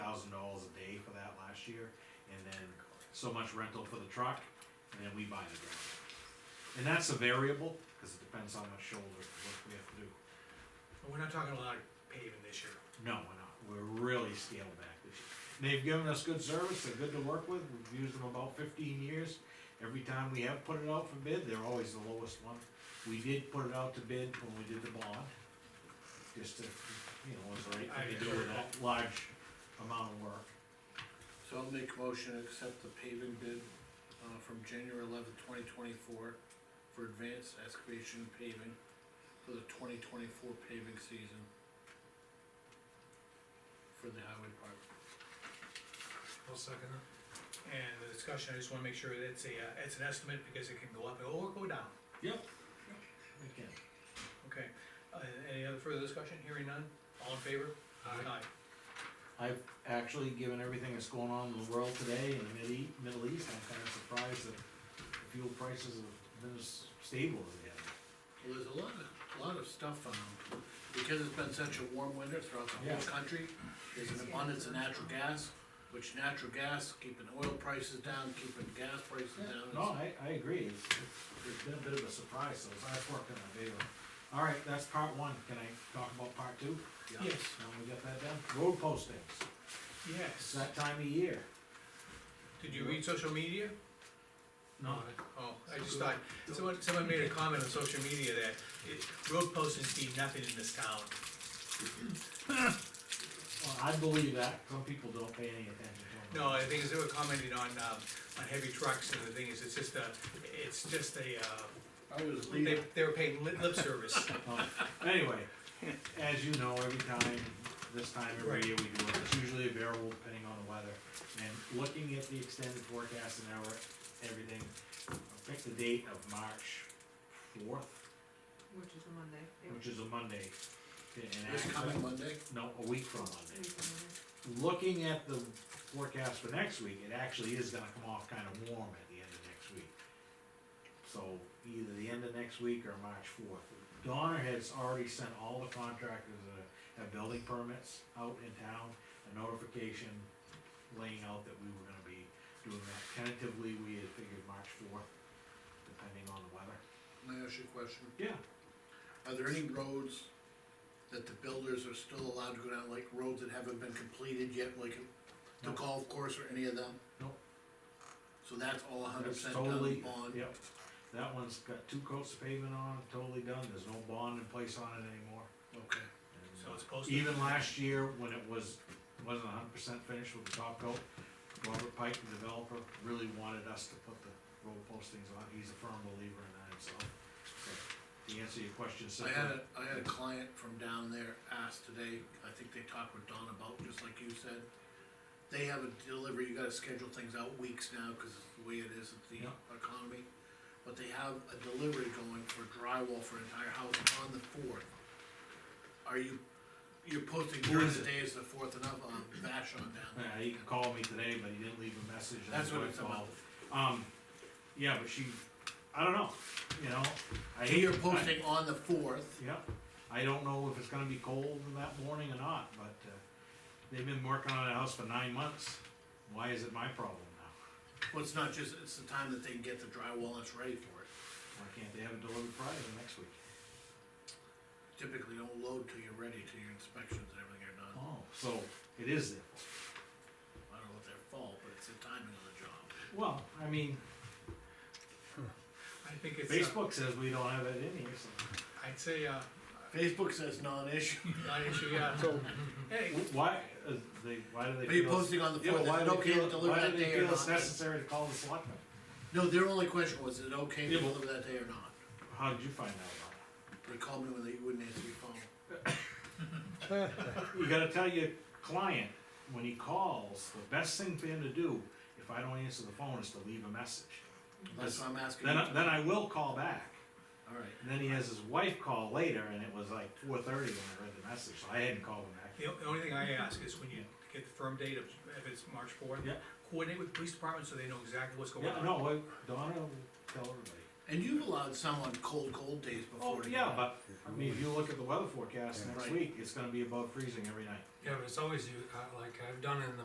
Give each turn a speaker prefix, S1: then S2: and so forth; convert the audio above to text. S1: so much rental for the truck, and then we buy the gravel. And that's a variable, cause it depends how much shoulder work we have to do.
S2: We're not talking a lot of paving this year.
S1: No, we're not, we're really scaled back this year. They've given us good service, they're good to work with, we've used them about fifteen years. Every time we have put it out for bid, they're always the lowest one. We did put it out to bid when we did the bond, just to, you know, was the right thing to do with that large amount of work.
S3: So I'll make a motion to accept the paving bid, uh, from January eleventh, twenty twenty-four for advanced excavation paving for the twenty twenty-four paving season for the highway department.
S2: I'll second it. And the discussion, I just wanna make sure that it's a, uh, it's an estimate, because it can go up or go down,
S1: Yep. Again,
S2: okay? Uh, any other further discussion, hearing none, all in favor? Aye.
S1: I've actually, given everything that's going on in the world today in the Mid- E, Middle East, I'm kinda surprised that fuel prices have been as stable as they have.
S3: Well, there's a lot of, a lot of stuff, um, because it's been such a warm winter throughout the whole
S1: Yeah.
S3: country, there's an abundance of natural gas, which natural gas, keeping oil prices down, keeping gas prices down.
S1: No, I, I agree, it's, it's- it's been a bit of a surprise, so it's, I've worked in my favor. All right, that's part one, can I talk about part two?
S3: Yeah.
S2: Yes,
S1: Now we got that done, road postings, it's
S2: yes,
S1: that time of year.
S2: did you read social media?
S1: No,
S2: Oh, I just thought, someone, someone made a comment on social media that it, road postings mean nothing in this town.
S1: well, I believe that, some people don't pay any attention to them.
S2: No, the thing is, they were commenting on, um, on heavy trucks, and the thing is, it's just a, it's just a, uh,
S3: I was
S2: they,
S3: leaving,
S2: they were paying lip lip service.
S1: Um, Anyway, as you know, every time, this time every
S2: Right.
S1: year we do it, it's usually a variable depending on the weather. And looking at the extended forecast and our, everything, I picked the date of March fourth,
S4: Which is a Monday. yeah.
S1: which is a Monday. And
S3: this
S1: actually-
S3: coming Monday,
S1: No, a week from
S4: It's
S1: Monday.
S4: a Monday.
S1: Looking at the forecast for next week, it actually is gonna come off kinda warm at the end of next week. So either the end of next week or March fourth. Donner has already sent all the contractors that have building permits out in town, a notification laying out that we were gonna be doing that. Tentatively, we had figured March fourth, depending on the weather.
S3: may I ask you a question?
S1: Yeah.
S3: Are there any roads that the builders are still allowed to go down, like roads that haven't been completed yet, like the
S1: No.
S3: golf course or any of them?
S1: Nope.
S3: So that's all hundred
S1: That's
S3: percent
S1: totally,
S3: done bond?
S1: yep, that one's got two coats of pavement on, it, totally done, there's no bond in place on it anymore.
S3: Okay,
S1: And,
S2: So
S1: uh,
S2: it's posted.
S1: Even last year, when it was, wasn't hundred percent finished with the top coat, Robert Pike, the developer, really wanted us to put the road postings on, he's a firm believer in that himself. But To answer your question
S3: I
S1: simply,
S3: had a, I had a client from down there ask today, I think they talked with Don about, just like you said. They have a delivery, you gotta schedule things out weeks now, cause it's the way it is with the
S1: Yeah.
S3: economy. But they have a delivery going for drywall for an entire house on the fourth. Are you, you're posting
S1: Who
S3: during
S1: is
S3: the
S1: it?
S3: day as the fourth and up on Vashon down there?
S1: yeah, uh, he called me today, but he didn't leave a message. and
S3: That's what
S1: I
S3: it's about.
S1: called. Um, yeah, but she, I don't know, you know, I
S3: So
S1: hate.
S3: you're
S1: I-
S3: posting on the fourth,
S1: Yep, I don't know if it's gonna be cold that morning or not, but, uh, they've been working on the house for nine months, why is it my problem now?
S3: well, it's not just, it's the time that they can get the drywall and it's ready for it.
S1: Why can't they have it delivered Friday or next week?
S3: Typically don't load till you're ready, till your inspections and everything are done.
S1: Oh, so it is their fault.
S3: I don't know if their fault, but it's the timing of the job.
S1: Well, I mean,
S2: I think it's, uh,
S1: Facebook says we don't have it in here, so
S2: I'd say, uh,
S3: Facebook says non-issue.
S2: not issue, yeah. Hey,
S1: why, uh, they, why do they feel?
S3: Are you
S1: it's-
S3: posting on the
S1: Yeah, but
S3: fourth, is
S1: why
S3: it
S1: do they
S3: okay
S1: feel-
S3: to deliver
S1: why do
S3: that
S1: they
S3: day or
S1: feel it's
S3: not?
S1: necessary to call the selectmen?
S3: No, their only question was, is it okay to
S1: Yeah, but-
S3: deliver that day or not?
S1: How did you find out about it?
S3: They called me when they wouldn't answer your phone.
S1: You gotta tell your client, when he calls, the best thing for him to do, if I don't answer the phone, is to leave a message.
S3: That's why I'm asking.
S1: Then,
S3: you.
S1: I- then I will call back,
S3: Alright,
S1: and then he has his wife call later, and it was like four thirty when I read the message, so I hadn't called him back.
S2: the o- the only thing I ask is when you get the firm date of, if it's March fourth,
S1: Yeah.
S2: coordinate with the police department so they know exactly what's going
S1: Yeah,
S2: on.
S1: no, well, Donna will tell everybody.
S3: and you've allowed someone cold, cold days
S1: Oh,
S3: before.
S1: yeah, but, I mean, if you look at the weather forecast next
S3: Right.
S1: week, it's gonna be above freezing every night.
S5: Yeah, but it's always, you- uh, like I've done in the